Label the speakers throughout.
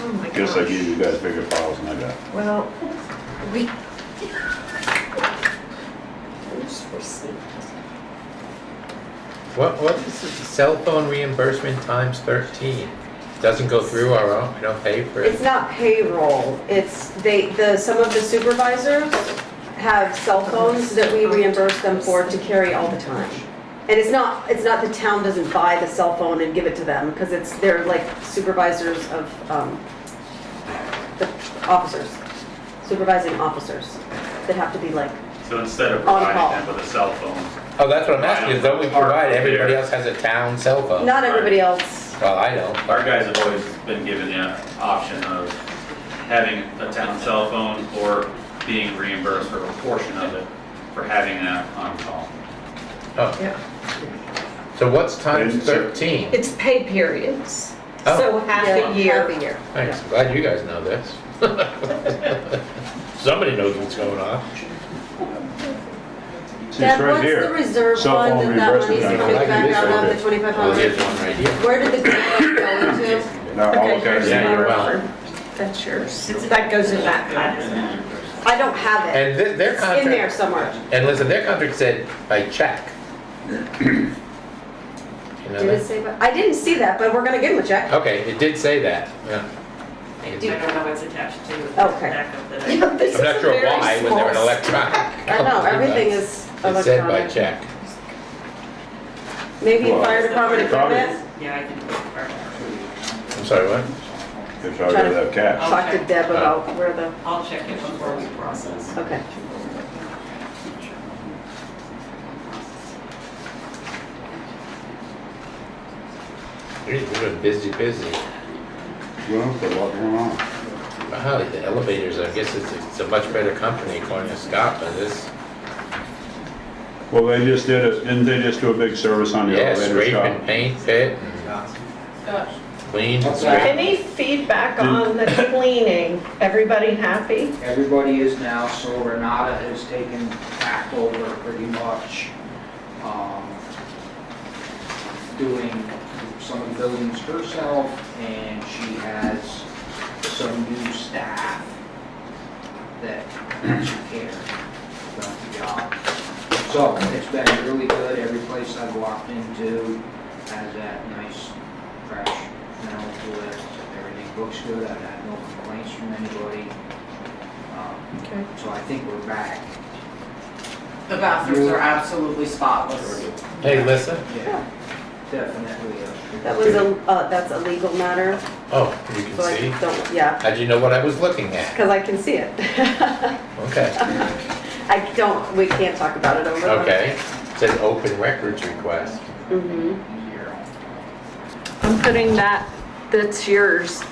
Speaker 1: Oh my
Speaker 2: Guess I
Speaker 1: gosh.
Speaker 2: gave you guys bigger files than I got.
Speaker 1: Well, we. Who's received?
Speaker 3: What, what is it? cell phone reimbursement times thirteen? Doesn't go through our own, we don't pay for
Speaker 4: It's
Speaker 3: it.
Speaker 4: not payroll, it's, they, the, some of the supervisors have cell phones that we reimburse them for to carry all the time. And it's not, it's not the town doesn't buy the cell phone and give it to them, because it's, they're like supervisors of, um, the officers, supervising officers that have to be like,
Speaker 5: So instead of
Speaker 4: On call.
Speaker 5: providing them with a cell phone,
Speaker 3: Oh, that's what I'm asking, is though we provide, everybody else has a town cell phone?
Speaker 4: not everybody else.
Speaker 3: Well, I don't.
Speaker 5: our guys have always been given the option of having a town cell phone or being reimbursed for a portion of it for having that on call.
Speaker 1: Yeah.
Speaker 3: So what's times
Speaker 2: It's-
Speaker 3: thirteen?
Speaker 1: It's pay periods,
Speaker 3: Oh.
Speaker 1: so half
Speaker 4: Yeah,
Speaker 1: a year.
Speaker 4: Half a year.
Speaker 3: Thanks, glad you guys know this. Somebody knows what's going on.
Speaker 2: See, it's
Speaker 4: Deb,
Speaker 2: right
Speaker 4: what's the
Speaker 2: here.
Speaker 4: reserve
Speaker 2: Cell
Speaker 4: fund
Speaker 2: phone
Speaker 4: that that money's
Speaker 2: reimbursement.
Speaker 4: coming
Speaker 3: I like
Speaker 4: back
Speaker 3: this
Speaker 4: out
Speaker 3: one.
Speaker 4: of, the twenty-five
Speaker 3: Oh,
Speaker 4: hundred?
Speaker 3: here's one right here.
Speaker 4: Where did the grant go to?
Speaker 2: Now, all of
Speaker 1: Okay,
Speaker 2: that,
Speaker 3: Yeah, you're welcome.
Speaker 1: That's yours. It's- That goes in that pile.
Speaker 4: I don't have it.
Speaker 3: And thi- their
Speaker 4: It's in there
Speaker 3: contract,
Speaker 4: somewhere.
Speaker 3: and listen, their contract said by check. You know
Speaker 4: Did it
Speaker 3: that?
Speaker 4: say, but, I didn't see that, but we're gonna give him a check.
Speaker 3: Okay, it did say that, yeah.
Speaker 6: I do not know what's attached to the
Speaker 4: Okay.
Speaker 6: backup that I.
Speaker 1: Yeah, this is a
Speaker 3: I'm not sure
Speaker 1: very
Speaker 3: why, when they're an
Speaker 1: small-
Speaker 3: electronic.
Speaker 4: I know, everything is
Speaker 3: It said by
Speaker 4: electronic.
Speaker 3: check.
Speaker 4: Maybe
Speaker 2: Well,
Speaker 4: fire department
Speaker 2: probably-
Speaker 4: equipment?
Speaker 6: Yeah, I can.
Speaker 3: I'm sorry, what?
Speaker 2: It's already that cash.
Speaker 4: Talk to
Speaker 3: Uh,
Speaker 4: Deb about where the,
Speaker 6: I'll check it before we process.
Speaker 4: okay.
Speaker 3: We've been busy, busy.
Speaker 2: Well, there's a lot going on.
Speaker 3: Wow, the elevators, I guess it's, it's a much better company according to Scott, but this,
Speaker 2: Well, they just did it, didn't they just do a big service on the
Speaker 3: yeah,
Speaker 2: elevator
Speaker 3: scrape and
Speaker 2: shop?
Speaker 3: paint pit, clean and scrape.
Speaker 1: Any feedback
Speaker 2: Mm.
Speaker 1: on the cleaning? Everybody happy?
Speaker 7: Everybody is now, so Renata has taken back over pretty much, um, doing some of the buildings herself, and she has some new staff that actually care about the job. So, it's been really good, every place I've walked into has that nice, fresh smell to it, everything looks good, I've had no complaints from anybody. Um,
Speaker 1: Okay.
Speaker 7: so I think we're back.
Speaker 6: The bathrooms are absolutely spotless.
Speaker 3: Hey, Lissa,
Speaker 7: Yeah, definitely. uh,
Speaker 4: That was a, uh, that's a legal matter,
Speaker 3: oh, you
Speaker 4: so
Speaker 3: can
Speaker 4: I
Speaker 3: see,
Speaker 4: don't, yeah,
Speaker 3: how'd you know what I was looking at?
Speaker 4: because I can see it.
Speaker 3: Okay,
Speaker 4: I don't, we can't talk about it over. the-
Speaker 3: okay, It says open records request.
Speaker 4: Mhm.
Speaker 7: Zero.
Speaker 1: I'm putting that, that's yours.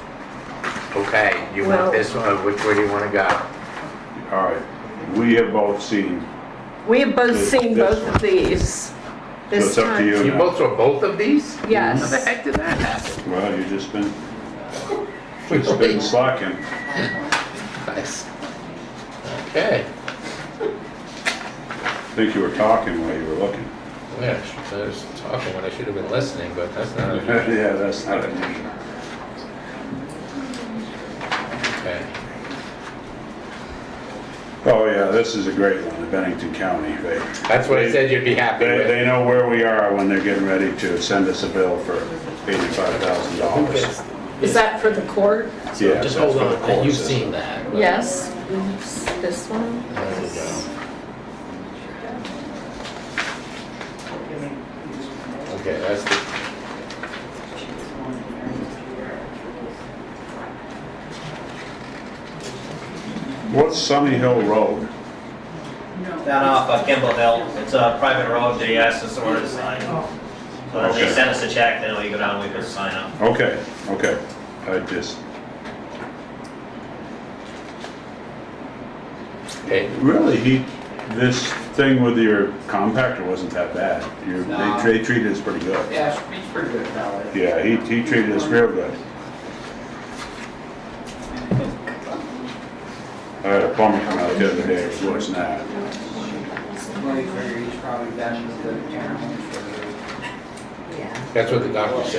Speaker 3: Okay, you want
Speaker 1: Well-
Speaker 3: this one, or which way do you wanna go?
Speaker 2: All right, we have both seen,
Speaker 1: We have both seen
Speaker 2: This
Speaker 1: both of these
Speaker 2: so
Speaker 1: this
Speaker 2: it's up to
Speaker 1: time.
Speaker 2: you
Speaker 3: You
Speaker 2: now.
Speaker 3: both saw both of these? How the
Speaker 1: Yes.
Speaker 3: heck did that happen?
Speaker 2: Well, you just been, just been slacking.
Speaker 3: Nice. Okay,
Speaker 2: I think you were talking while you were looking.
Speaker 3: yeah, I was talking when I should have been listening, but that's not,
Speaker 2: Yeah, that's not unusual.
Speaker 3: okay.
Speaker 2: Oh, yeah, this is a great one, the Bennington County. They,
Speaker 3: That's what I said you'd be happy
Speaker 2: they,
Speaker 3: with.
Speaker 2: they know where we are when they're getting ready to send us a bill for eighty-five thousand dollars.
Speaker 1: Is that for the court?
Speaker 2: Yeah,
Speaker 3: Just hold
Speaker 2: that's for the
Speaker 3: on,
Speaker 2: court
Speaker 3: you've
Speaker 2: system.
Speaker 3: seen that. right?
Speaker 1: Yes. This one?
Speaker 3: There we go. Okay, that's the,
Speaker 2: What's Sunny Hill Road?
Speaker 8: Down off uh, Kimball Hill, it's a private road, they asked us to order the sign. So then
Speaker 2: Okay.
Speaker 8: they sent us a check, then we go down, we put the sign up.
Speaker 2: Okay, okay, I just,
Speaker 3: okay,
Speaker 2: really, he, this thing with your compactor wasn't that bad. You,
Speaker 7: No.
Speaker 2: they, they treated us pretty good.
Speaker 7: Yeah, it's- it's pretty good about it.
Speaker 2: Yeah, he, he treated us real good. I had a plumber come out the other day, it was worse than that.
Speaker 7: Like, he's probably been with the town for
Speaker 4: Yeah.
Speaker 3: that's what the doctor said.